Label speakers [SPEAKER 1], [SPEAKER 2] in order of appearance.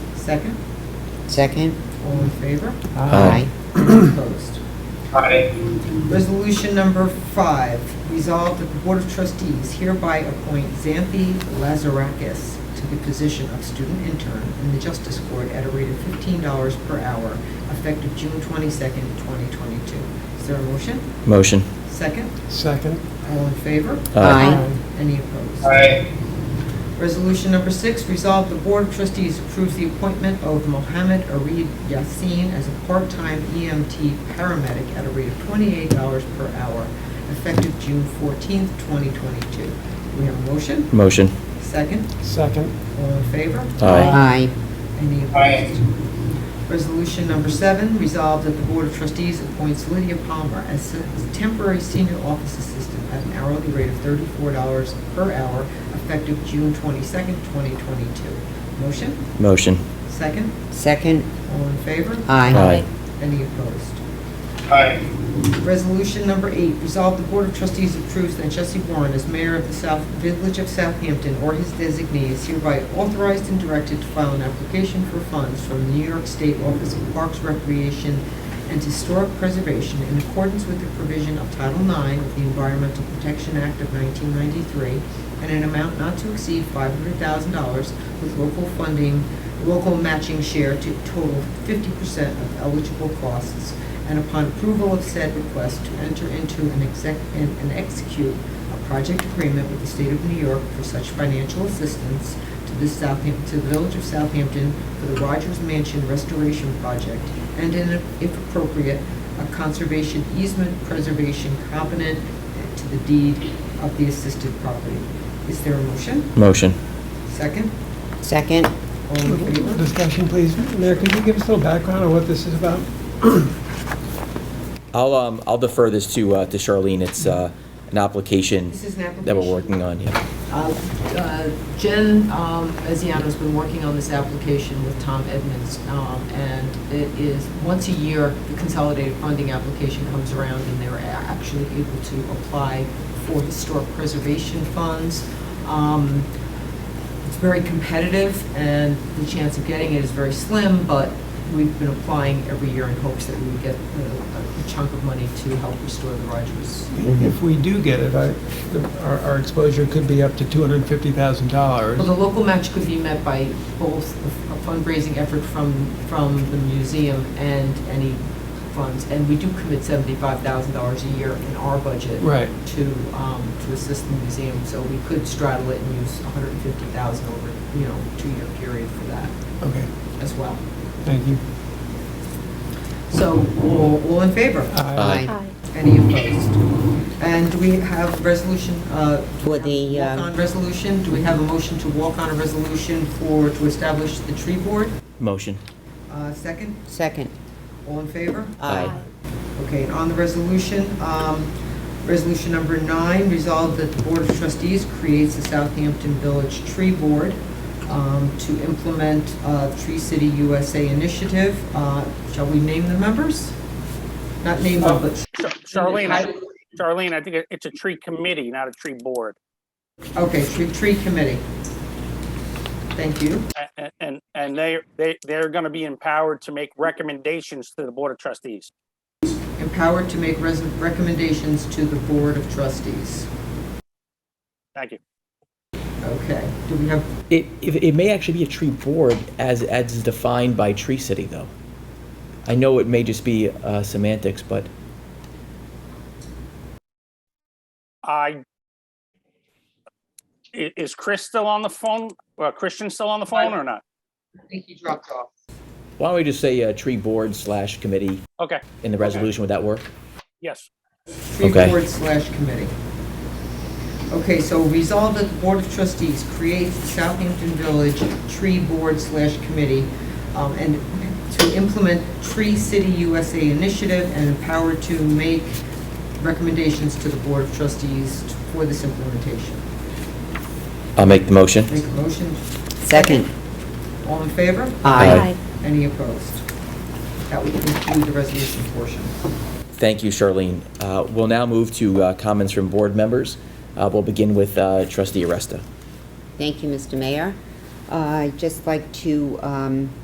[SPEAKER 1] Second,
[SPEAKER 2] Second?
[SPEAKER 1] all in favor?
[SPEAKER 3] Aye.
[SPEAKER 1] Opposed.
[SPEAKER 4] aye,
[SPEAKER 1] Resolution number five, resolved that the Board of Trustees hereby appoint Xanthi Lazarakis to the position of student intern in the Justice Court at a rate of fifteen dollars per hour, effective June twenty-second, twenty twenty-two. Is there a motion?
[SPEAKER 3] Motion.
[SPEAKER 1] Second,
[SPEAKER 5] Second.
[SPEAKER 1] all in favor?
[SPEAKER 2] Aye.
[SPEAKER 1] Any opposed?
[SPEAKER 4] aye,
[SPEAKER 1] Resolution number six, resolve the Board of Trustees approves the appointment of Mohammed Arid Yassin as a part-time EMT paramedic at a rate of $28 per hour, effective June 14th, 2022. We have a motion?
[SPEAKER 3] Motion.
[SPEAKER 1] Second?
[SPEAKER 5] Second.
[SPEAKER 1] All in favor?
[SPEAKER 3] Aye.
[SPEAKER 2] Aye.
[SPEAKER 1] Any
[SPEAKER 4] aye,
[SPEAKER 1] opposed? Resolution number seven, resolved that the Board of Trustees appoints Lydia Palmer as se- temporary senior office assistant at an hourly rate of thirty-four dollars per hour effective June twenty-second, twenty twenty-two. Motion?
[SPEAKER 3] Motion.
[SPEAKER 1] Second?
[SPEAKER 2] Second?
[SPEAKER 1] All in favor?
[SPEAKER 2] Aye.
[SPEAKER 3] Aye.
[SPEAKER 1] Any opposed?
[SPEAKER 4] aye,
[SPEAKER 1] Resolution number eight, resolve the Board of Trustees approves that Jesse Warren as mayor of the South Village of Southampton or his designee is hereby authorized and directed to file an application for funds from the New York State Office of Parks, Recreation, and Historic Preservation in accordance with the provision of Title IX of the Environmental Protection Act of 1993 and an amount not to exceed $500,000 with local funding, local matching share to total 50% of eligible costs and upon approval of said request, to enter into and exec, and and execute a project agreement with the state of New York for such financial assistance to the Southampton, to the village of Southampton for the Rogers Mansion Restoration Project, and in, if appropriate, a conservation easement preservation covenant to the deed of the assisted property. Is there a motion?
[SPEAKER 3] Motion.
[SPEAKER 1] Second?
[SPEAKER 2] Second?
[SPEAKER 1] All in favor?
[SPEAKER 5] Discussion, please. Mayor, could you give us a little background on what this is about?
[SPEAKER 3] I'll, um, I'll defer this to, uh, to Charlene. It's, uh, an application
[SPEAKER 1] This is an application.
[SPEAKER 3] that we're working on, yeah.
[SPEAKER 1] Uh, uh, Jen um, Veziano's been working on this application with Tom Edmonds, um, and it is, once a year, the consolidated funding application comes around, and they're a- actually able to apply for historic preservation funds. Um, It's very competitive, and the chance of getting it is very slim, but we've been applying every year in hopes that we would get uh, a chunk of money to help restore the Rogers.
[SPEAKER 5] If we do get it, I, the- our, our exposure could be up to two hundred and fifty thousand dollars.
[SPEAKER 1] Well, the local match could be met by both a fundraising effort from, from the museum and any funds. And we do commit $75,000 a year in our budget.
[SPEAKER 5] Right.
[SPEAKER 1] To, um, to assist the museum, so we could straddle it and use 150,000 over, you know, two-year period for that
[SPEAKER 5] Okay,
[SPEAKER 1] as well.
[SPEAKER 5] thank you.
[SPEAKER 1] So, all all in favor?
[SPEAKER 3] Aye.
[SPEAKER 1] Any opposed? And do we have resolution, uh...
[SPEAKER 2] For the, um,
[SPEAKER 1] Walk-on resolution, do we have a motion to walk on a resolution for, to establish the tree board?
[SPEAKER 3] Motion.
[SPEAKER 1] Uh, Second,
[SPEAKER 2] Second?
[SPEAKER 1] all in favor?
[SPEAKER 3] Aye.
[SPEAKER 1] Okay, and on the resolution, um, resolution number nine, resolved that the Board of Trustees creates the Southampton Village Tree Board um, to implement uh, Tree City USA initiative. Uh, Shall we name the members? Not name them, but,
[SPEAKER 6] Char- Charlene, I- Charlene, I think it- it's a tree committee, not a tree board.
[SPEAKER 1] okay, tree, tree committee. Thank you.
[SPEAKER 6] A- a- And, and they, they, they're going to be empowered to make recommendations to the Board of Trustees.
[SPEAKER 1] Empowered to make res- recommendations to the Board of Trustees.
[SPEAKER 6] Thank you.
[SPEAKER 1] Okay, do we have,
[SPEAKER 3] It, it it may actually be a tree board as, as defined by Tree City, though. I know it may just be uh, semantics, but
[SPEAKER 6] I, i- is Chris still on the phone? Or Christian still on the phone or not?
[SPEAKER 1] I think he dropped off.
[SPEAKER 3] why don't we just say, uh, tree board slash committee
[SPEAKER 6] Okay,
[SPEAKER 3] in the resolution? Would that work?
[SPEAKER 6] yes.
[SPEAKER 1] Tree
[SPEAKER 3] Okay.
[SPEAKER 1] Board slash committee. Okay, so resolve that the Board of Trustees creates the Southampton Village Tree Board slash committee um, and to implement Tree City USA initiative and empower to make recommendations to the Board of Trustees for this implementation.
[SPEAKER 3] I'll make the motion.
[SPEAKER 1] Make a motion.
[SPEAKER 2] Second?
[SPEAKER 1] All in favor?
[SPEAKER 3] Aye.
[SPEAKER 1] Any opposed? That would conclude the resolution portion.
[SPEAKER 3] Thank you, Charlene. Uh, We'll now move to uh, comments from board members. Uh, We'll begin with uh, trustee Aresta.
[SPEAKER 2] Thank you, Mr. Mayor. Uh, I'd just like to um,